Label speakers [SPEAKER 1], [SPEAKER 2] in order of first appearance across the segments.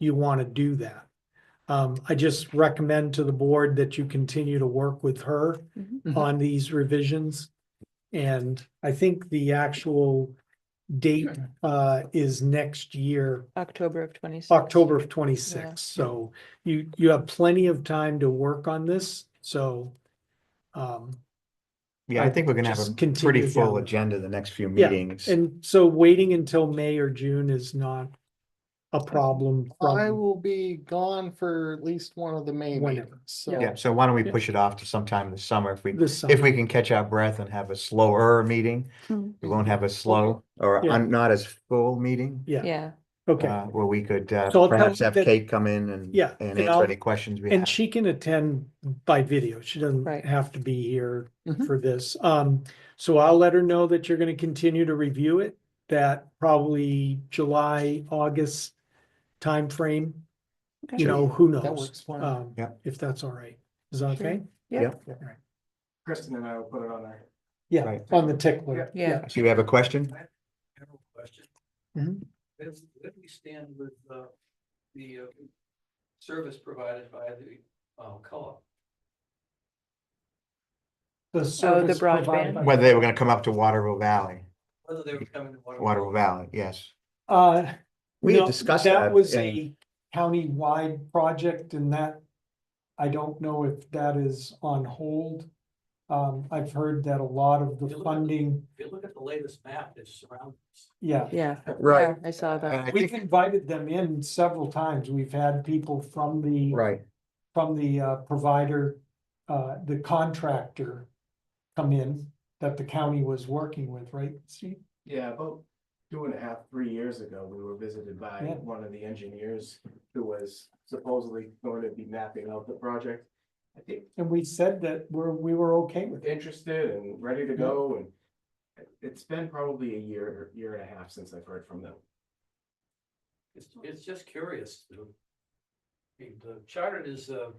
[SPEAKER 1] you want to do that. Um, I just recommend to the board that you continue to work with her
[SPEAKER 2] Mm-hmm.
[SPEAKER 3] Mhm.
[SPEAKER 1] on these revisions. And I think the actual date, uh, is next year,
[SPEAKER 3] October of twenty.
[SPEAKER 1] October of twenty-six. So you, you have plenty of time to work on this, so. Um,
[SPEAKER 2] Yeah, I
[SPEAKER 1] I
[SPEAKER 2] think we're gonna have
[SPEAKER 1] just
[SPEAKER 2] a
[SPEAKER 1] continue
[SPEAKER 2] pretty
[SPEAKER 1] down
[SPEAKER 2] full
[SPEAKER 1] the-
[SPEAKER 2] agenda the next few
[SPEAKER 1] Yeah,
[SPEAKER 2] meetings.
[SPEAKER 1] and so waiting until May or June is not a problem
[SPEAKER 4] I
[SPEAKER 1] from
[SPEAKER 4] will be gone for at least one of the May
[SPEAKER 1] Whenever.
[SPEAKER 4] meetings, so.
[SPEAKER 2] Yeah, so why don't we
[SPEAKER 1] Yeah.
[SPEAKER 2] push it off to sometime this summer if we,
[SPEAKER 1] this
[SPEAKER 2] if we
[SPEAKER 1] summer.
[SPEAKER 2] can catch our breath and have a slower meeting.
[SPEAKER 3] Hmm.
[SPEAKER 2] We won't have a slow or
[SPEAKER 1] Yeah.
[SPEAKER 2] un- not as full meeting,
[SPEAKER 1] Yeah,
[SPEAKER 3] Yeah,
[SPEAKER 1] okay.
[SPEAKER 2] uh, where we could uh,
[SPEAKER 1] So I'll tell
[SPEAKER 2] perhaps
[SPEAKER 1] you
[SPEAKER 2] have
[SPEAKER 1] that-
[SPEAKER 2] Kate come in and,
[SPEAKER 1] Yeah,
[SPEAKER 2] and
[SPEAKER 1] and
[SPEAKER 2] answer
[SPEAKER 1] I'll-
[SPEAKER 2] any questions we
[SPEAKER 1] And
[SPEAKER 2] have.
[SPEAKER 1] she can attend by video. She doesn't
[SPEAKER 3] Right.
[SPEAKER 1] have to be here
[SPEAKER 4] Mhm.
[SPEAKER 1] for this. Um, so I'll let her know that you're gonna continue to review it. That probably July, August timeframe,
[SPEAKER 3] Okay.
[SPEAKER 1] you know, who
[SPEAKER 4] That
[SPEAKER 1] knows?
[SPEAKER 4] works for me.
[SPEAKER 1] Um,
[SPEAKER 2] Yep.
[SPEAKER 1] if that's all right. Is that
[SPEAKER 3] Sure.
[SPEAKER 1] okay?
[SPEAKER 5] Kristen and I will put it on our.
[SPEAKER 1] Yeah,
[SPEAKER 2] Right.
[SPEAKER 1] on the tickler.
[SPEAKER 3] Yeah.
[SPEAKER 2] Do you have a question?
[SPEAKER 5] general question.
[SPEAKER 1] Mhm.
[SPEAKER 5] Where do- where do we stand with uh, the uh, service provided by the uh, co-op?
[SPEAKER 1] The service
[SPEAKER 3] broadband.
[SPEAKER 1] provided by-
[SPEAKER 2] Whether they were gonna come up to Waterville Valley,
[SPEAKER 5] Whether they were coming to water.
[SPEAKER 2] Waterville Valley, yes.
[SPEAKER 1] Uh,
[SPEAKER 2] We had
[SPEAKER 1] No,
[SPEAKER 2] discussed that
[SPEAKER 1] was
[SPEAKER 2] and-
[SPEAKER 1] a county-wide project and that, I don't know if that is on hold. Um, I've heard that a lot of the
[SPEAKER 5] It looked-
[SPEAKER 1] funding,
[SPEAKER 5] If you look at the latest map that surrounds. us,
[SPEAKER 1] yeah,
[SPEAKER 3] yeah.
[SPEAKER 2] Right.
[SPEAKER 3] I saw
[SPEAKER 2] And
[SPEAKER 3] that.
[SPEAKER 2] I
[SPEAKER 1] we've
[SPEAKER 2] think,
[SPEAKER 1] invited them in several times. We've had people from the,
[SPEAKER 2] right,
[SPEAKER 1] from the uh, provider, uh, the contractor come in that the county was working with, right? See,
[SPEAKER 6] Yeah, about two and a half, three years ago, we were visited by
[SPEAKER 1] Yeah.
[SPEAKER 6] one of the engineers who was supposedly going to be mapping out the project. I think
[SPEAKER 1] and we said that we're, we were okay with it.
[SPEAKER 6] interested and ready to
[SPEAKER 1] Yeah.
[SPEAKER 6] go and it- it's been probably a year, year and a half since I've heard from them.
[SPEAKER 5] It's, it's just curious. you know. The- The chartered is, uh,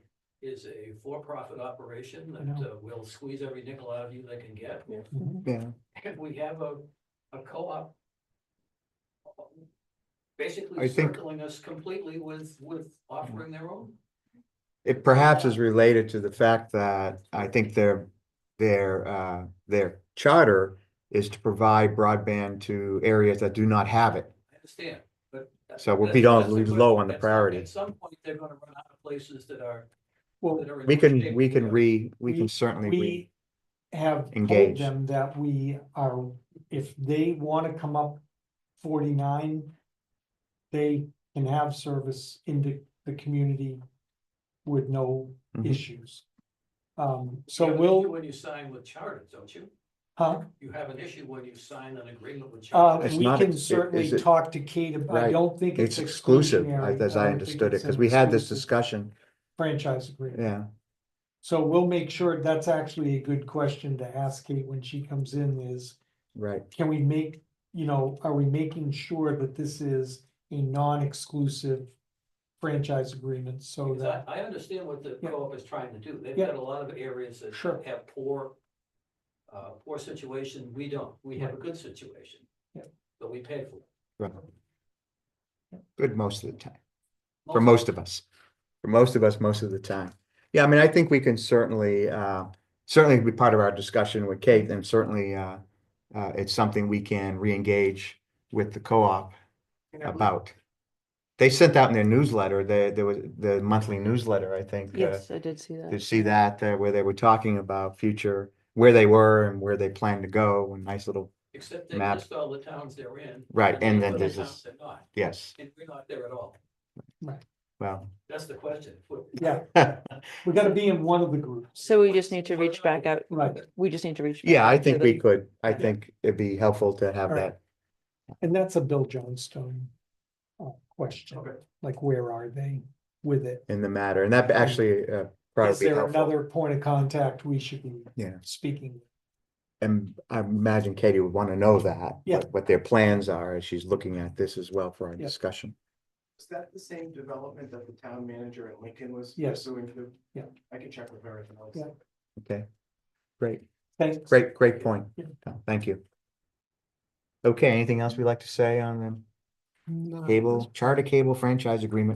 [SPEAKER 5] is a for-profit operation that uh, will squeeze every nickel out of you they can get.
[SPEAKER 2] yeah.
[SPEAKER 5] And we have a, a co-op.
[SPEAKER 2] I
[SPEAKER 5] Basically
[SPEAKER 2] think-
[SPEAKER 5] circling us completely with, with offering their own.
[SPEAKER 2] It perhaps is related to the fact that I think their, their, uh, their charter is to provide broadband to areas that do not have it.
[SPEAKER 5] I understand, but. that-
[SPEAKER 2] So we'll
[SPEAKER 5] that's-
[SPEAKER 2] be down-
[SPEAKER 5] that's the
[SPEAKER 2] we'll be
[SPEAKER 5] question.
[SPEAKER 2] low on the
[SPEAKER 5] At some-
[SPEAKER 2] priority.
[SPEAKER 5] At some point, they're gonna run out of places that are.
[SPEAKER 1] Well,
[SPEAKER 5] that are in
[SPEAKER 2] We
[SPEAKER 5] good
[SPEAKER 2] can,
[SPEAKER 5] shape
[SPEAKER 2] we
[SPEAKER 5] to
[SPEAKER 2] can
[SPEAKER 5] do it.
[SPEAKER 2] re, we
[SPEAKER 1] We-
[SPEAKER 2] can certainly re,
[SPEAKER 1] We have told
[SPEAKER 2] engage.
[SPEAKER 1] them that we are, if they wanna come up forty-nine, they can have service into the community with no
[SPEAKER 2] Mhm.
[SPEAKER 1] issues. Um,
[SPEAKER 5] You
[SPEAKER 1] so
[SPEAKER 5] have an issue
[SPEAKER 1] we'll,
[SPEAKER 5] When you sign with charter, don't you?
[SPEAKER 1] huh,
[SPEAKER 5] You have an issue when you sign an agreement with
[SPEAKER 1] uh,
[SPEAKER 5] charter.
[SPEAKER 2] It's
[SPEAKER 1] we
[SPEAKER 2] not
[SPEAKER 1] can
[SPEAKER 2] ex- it-
[SPEAKER 1] certainly
[SPEAKER 2] is it-
[SPEAKER 1] talk to Kate, about- I
[SPEAKER 2] Right.
[SPEAKER 1] don't think
[SPEAKER 2] it's
[SPEAKER 1] it's
[SPEAKER 2] exclusive,
[SPEAKER 1] exclusionary.
[SPEAKER 2] as I
[SPEAKER 1] don't think
[SPEAKER 2] understood it,
[SPEAKER 1] it's an
[SPEAKER 2] because we had this
[SPEAKER 1] exclusive
[SPEAKER 2] discussion,
[SPEAKER 1] Franchise agreement.
[SPEAKER 2] yeah.
[SPEAKER 1] So we'll make sure, that's actually a good question to ask Kate when she comes in is,
[SPEAKER 2] Right.
[SPEAKER 1] can we make, you know, are we making sure that this is a non-exclusive franchise agreement so
[SPEAKER 5] Because I,
[SPEAKER 1] that,
[SPEAKER 5] I understand what the
[SPEAKER 1] Yeah.
[SPEAKER 5] co-op is trying to do. They've
[SPEAKER 1] Yeah.
[SPEAKER 5] got a lot of areas that
[SPEAKER 1] Sure.
[SPEAKER 5] have poor, uh, poor situation. We don't. We have a good situation.
[SPEAKER 1] Yeah.
[SPEAKER 5] But we pay for it.
[SPEAKER 2] right. Good most of the time.
[SPEAKER 5] Most
[SPEAKER 2] for
[SPEAKER 5] of
[SPEAKER 2] most of us, for most of us, most of the time. Yeah, I mean, I think we can certainly, uh, certainly be part of our discussion with Kate and certainly, uh, uh, it's something we can re-engage with the co-op about. They sent out in their newsletter, the, there was the monthly newsletter, I think. uh,
[SPEAKER 3] Yes, I did see that.
[SPEAKER 2] To see that, uh, where they were talking about future, where they were and where they plan to go and nice little,
[SPEAKER 5] Except they
[SPEAKER 2] map.
[SPEAKER 5] list all the towns they're in.
[SPEAKER 2] Right, and then
[SPEAKER 5] they put the
[SPEAKER 2] there's
[SPEAKER 5] towns
[SPEAKER 2] this-
[SPEAKER 5] They're not,
[SPEAKER 2] yes,
[SPEAKER 5] and we're not there at all.
[SPEAKER 2] well.
[SPEAKER 5] That's the question. What-
[SPEAKER 1] yeah, we gotta be in one of the groups,
[SPEAKER 3] So we just need to reach back out.
[SPEAKER 1] right?
[SPEAKER 3] We just need to reach. back
[SPEAKER 2] Yeah, I
[SPEAKER 3] out to
[SPEAKER 2] think we
[SPEAKER 3] them.
[SPEAKER 2] could, I
[SPEAKER 1] Yeah.
[SPEAKER 2] think it'd be helpful to have
[SPEAKER 1] All right.
[SPEAKER 2] that
[SPEAKER 1] And that's a Bill Johnstone uh, question,
[SPEAKER 5] Okay.
[SPEAKER 1] like where are they with it?
[SPEAKER 2] in the matter, and that actually uh,
[SPEAKER 1] Is
[SPEAKER 2] probably be
[SPEAKER 1] there
[SPEAKER 2] helpful.
[SPEAKER 1] another point of contact we should be
[SPEAKER 2] Yeah.
[SPEAKER 1] speaking?
[SPEAKER 2] And I imagine Katie would want to know that.
[SPEAKER 1] Yeah.
[SPEAKER 2] what- What their plans are, as she's looking at this as well for our
[SPEAKER 1] Yeah.
[SPEAKER 2] discussion.
[SPEAKER 6] Is that the same development that the town manager in Lincoln was
[SPEAKER 1] Yes.
[SPEAKER 6] pursuing too?
[SPEAKER 1] Yeah.
[SPEAKER 6] I can check with her. if not.
[SPEAKER 1] Yeah.
[SPEAKER 2] Okay, great,
[SPEAKER 1] Thanks.
[SPEAKER 2] great, great point.
[SPEAKER 1] Yeah.
[SPEAKER 2] Tom. Thank you. Okay, anything else we'd like to say on the cable, charter cable franchise agreement